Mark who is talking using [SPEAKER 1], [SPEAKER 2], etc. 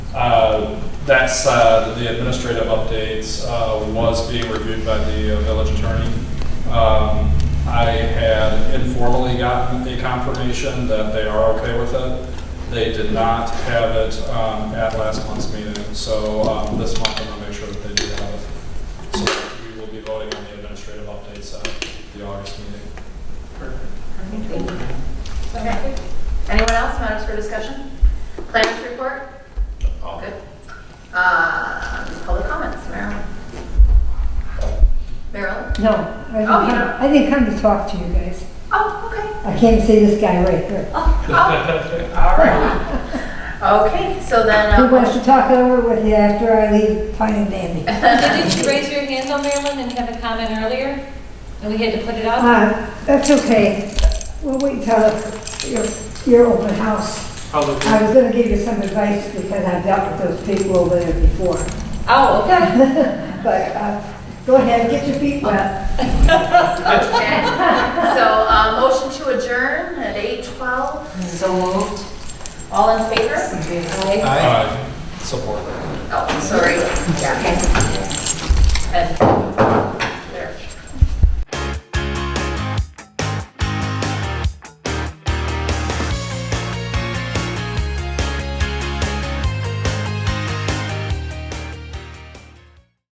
[SPEAKER 1] Uh, That side, the administrative updates uh, was being reviewed by the uh, village attorney. Um, I had informally gotten a confirmation that they are okay with it. They did not have it um, at last month's meeting, so um, this month I'm gonna make sure that they do have it. So we will be voting on the administrative updates at the August meeting.
[SPEAKER 2] Okay. Anyone else matters for discussion? Planners report? All good. Um, Public comments, Merrill? Merrill?
[SPEAKER 3] No, I didn't,
[SPEAKER 2] Oh, you don't-
[SPEAKER 3] I didn't come to talk to you guys.
[SPEAKER 2] Oh, okay.
[SPEAKER 3] I came to see this guy right here.
[SPEAKER 2] Oh, oh. All right. Okay, so then,
[SPEAKER 3] Who wants
[SPEAKER 2] uh,
[SPEAKER 3] to talk it over with you after I leave, fine and dandy.
[SPEAKER 4] Didn't you raise your hand on Marilyn and have a comment earlier? And we had to put it up?
[SPEAKER 3] Uh, that's okay. We'll wait till your, your open house. I was gonna give you some advice because I've dealt with those people over there before.
[SPEAKER 4] Oh, okay.
[SPEAKER 3] But, uh, go ahead, get your feet wet.
[SPEAKER 2] okay. So, uh, motion to adjourn at 8:12.
[SPEAKER 4] So moved.
[SPEAKER 2] All in favor?
[SPEAKER 4] Aye.
[SPEAKER 1] Aye. Uh, Support.
[SPEAKER 2] Oh, sorry. Yeah, okay. And